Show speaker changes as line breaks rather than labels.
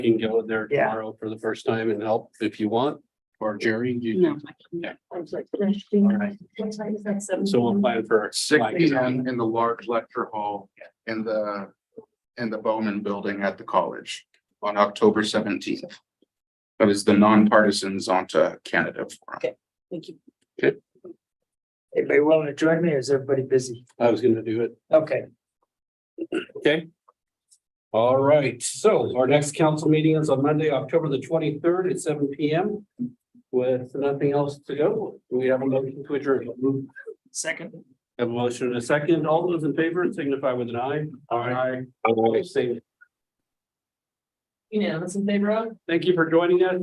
You can go there
Yeah.
tomorrow for the first time and help if you want, or Jerry, you,
No.
Yeah.
Alright.
so we'll plan for.
Six
like,
P M in the large lecture hall in the, in the Bowman Building at the college on October seventeenth. That is the nonpartisans onto Canada Forum.
Thank you.
Anybody willing to join me or is everybody busy?
I was gonna do it,
Okay,
okay? All right, so our next council meeting is on Monday, October the twenty-third at seven P M. With nothing else to go, we have a motion to adjourn.
second.
Have a motion and a second, all those in favor signify with an eye. Aye. Aye. Same.
You know, that's in favor of?
Thank you for joining us.